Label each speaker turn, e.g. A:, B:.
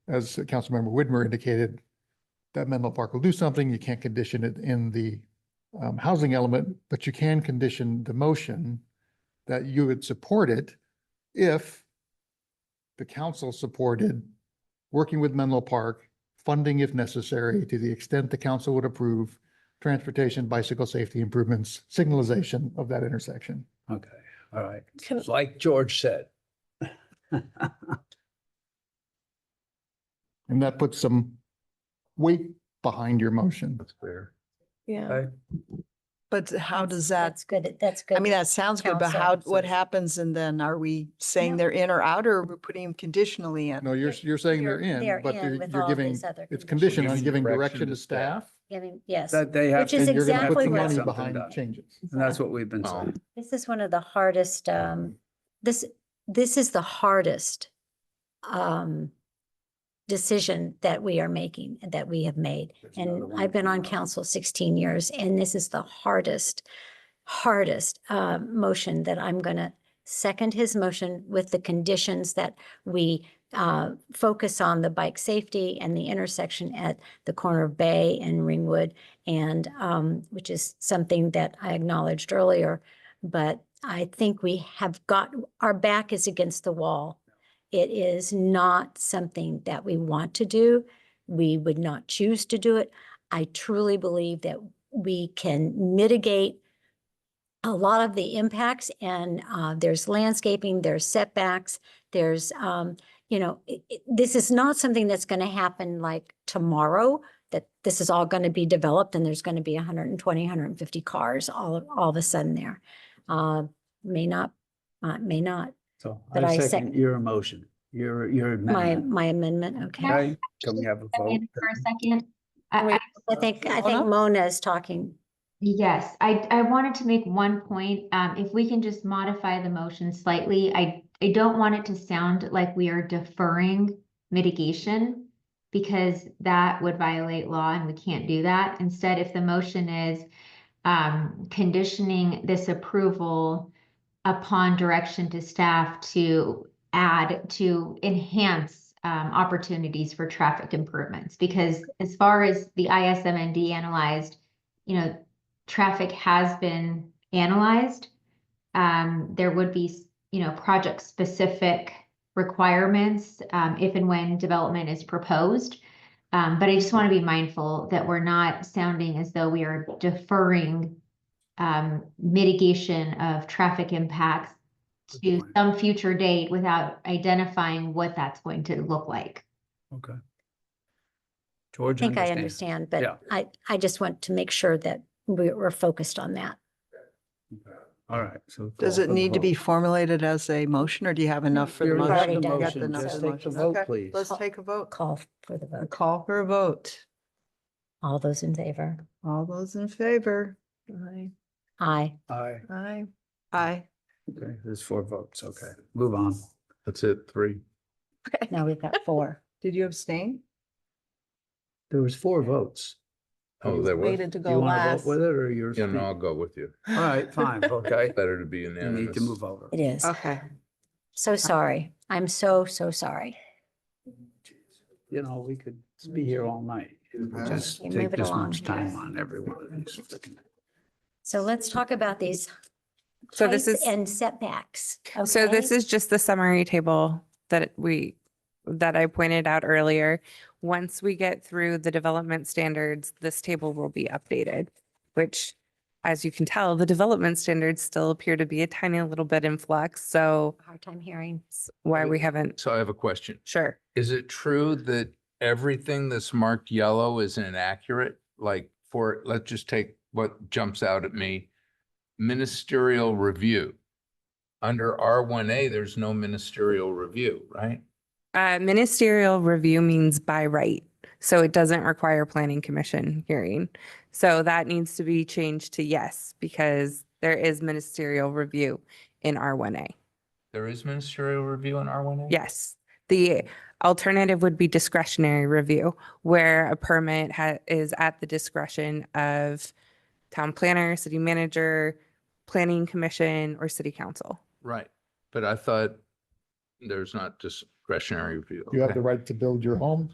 A: as Councilmember Widmer indicated, that Menlo Park will do something. You can't condition it in the um, housing element, but you can condition the motion that you would support it if the council supported working with Menlo Park, funding if necessary, to the extent the council would approve transportation, bicycle safety improvements, signalization of that intersection.
B: Okay, all right.
C: Can,
B: It's like George said.
A: And that puts some weight behind your motion.
B: That's fair.
C: yeah,
B: Okay.
D: But how does that,
E: That's good. That's good.
D: I mean, that sounds good, but
E: counsel.
D: how, what happens and then are we saying
E: No.
D: they're in or out or we're putting them conditionally in?
A: No, you're, you're saying they're
E: You're- they're
A: in, but
E: in
A: you're
E: with
A: you're
E: all
A: giving,
E: these other
A: it's
E: conditions.
A: conditioned on giving
B: Giving direction
A: direction to
B: to staff.
A: staff.
E: Giving- Yes,
B: That they have.
E: Which is
B: to-
A: And you're gonna put
E: exactly
A: the
E: what-
A: money
B: Something
A: behind
B: done.
A: changes.
B: And that's what we've been
F: Oh.
B: saying.
E: this is one of the hardest, um, this, this is the hardest um, decision that we are making, and that we have made.
B: There's another
E: And
B: one
E: I've been
B: coming
E: on
B: up.
E: council sixteen years, and this is the hardest, hardest uh, motion that I'm gonna second his motion with the conditions that we uh, focus on the bike safety and the intersection at the corner of Bay and Ringwood, and um, which is something that I acknowledged earlier. But I think we have got, our back is against the wall. It is not something that we want to do. We would not choose to do it. I truly believe that we can mitigate a lot of the impacts and uh, there's landscaping, there's setbacks, there's, um, you know, i- i- this is not something that's going to happen like tomorrow, that this is all going to be developed and there's going to be 120, 150 cars all, all of a sudden there. Uh, May not, uh, may not.
B: So
E: But
B: I
E: I
B: second
E: second-
B: your motion, your, your
E: My,
B: amendment.
E: my amendment, okay.
B: Okay, can we have a
G: step
B: vote?
G: in for a second? I-
E: Wait,
G: I-
E: I think,
D: Mona?
E: I think Mona is talking.
G: Yes, I, I wanted to make one point. Um, if we can just modify the motion slightly, I, I don't want it to sound like we are deferring mitigation because that would violate law and we can't do that. Instead, if the motion is um, conditioning this approval upon direction to staff to add, to enhance um, opportunities for traffic improvements. Because as far as the ISMND analyzed, you know, traffic has been analyzed. Um, there would be, you know, project-specific requirements, um, if and when development is proposed. Um, but I just want to be mindful that we're not sounding as though we are deferring um, mitigation of traffic impacts
B: Good
G: to
B: point.
G: some future date without identifying what that's going to look like.
B: Okay.
E: I
B: George
E: think I
B: understands.
E: understand,
B: Yeah.
E: but I, I just want to make sure that we- we're focused on that.
B: Okay. All right, so.
D: Does
B: call for
D: it
B: the
D: need to be
B: vote.
D: formulated as a motion or do you have enough for the
B: You're
E: We've
D: motion?
E: already
B: in the
E: done
D: You got
B: motion.
D: the enough
B: Just
D: for the
B: take the
D: motion.
B: vote,
D: Okay,
B: please.
D: Let's take a vote.
E: Call for the vote.
D: uh, Call for a vote.
E: All those in favor?
D: All those in favor? Aye.
E: Aye.
B: Aye.
D: Aye. Aye.
B: Okay, there's four votes. Okay, move on.
F: That's it, three.
E: Now we've got four.
D: Did you abstain?
B: There was four votes.
F: Oh, there was.
H: Waited to
B: Do you
H: go
B: want to
H: last.
B: vote with it or yours?
F: Yeah, no, I'll go with you.
B: All right, fine, okay.
F: Better to be
B: You
F: unanimous.
B: need to move over.
E: It is.
D: Okay.
E: So sorry. I'm so, so sorry.
B: You know, we could be here all night. Just
E: Okay,
B: take
E: move it
B: this
E: along.
B: much time on every one of these. freaking-
E: So let's talk about these
H: So this
E: heights
H: is-
E: And setbacks.
H: So this
E: okay?
H: is just the summary table that we, that I pointed out earlier. Once we get through the development standards, this table will be updated, which, as you can tell, the development standards still appear to be a tiny little bit in flux. So
E: Hard time hearing.
H: s- why we haven't,
F: So I have a question.
H: sure.
F: Is it true that everything that's marked yellow is inaccurate? Like for, let's just take what jumps out at me. Ministerial review. Under R one A, there's no ministerial review, right?
H: Uh, ministerial review means by right. So it doesn't require planning commission hearing. So that needs to be changed to yes, because there is ministerial review in R1A.
F: There is ministerial review in R one A?
H: Yes. The alternative would be discretionary review, where a permit ha- is at the discretion of town planner, city manager, planning commission, or city council.
F: Right, but I thought there's not just discretionary review.
A: You have
F: okay.
A: the right to build your home.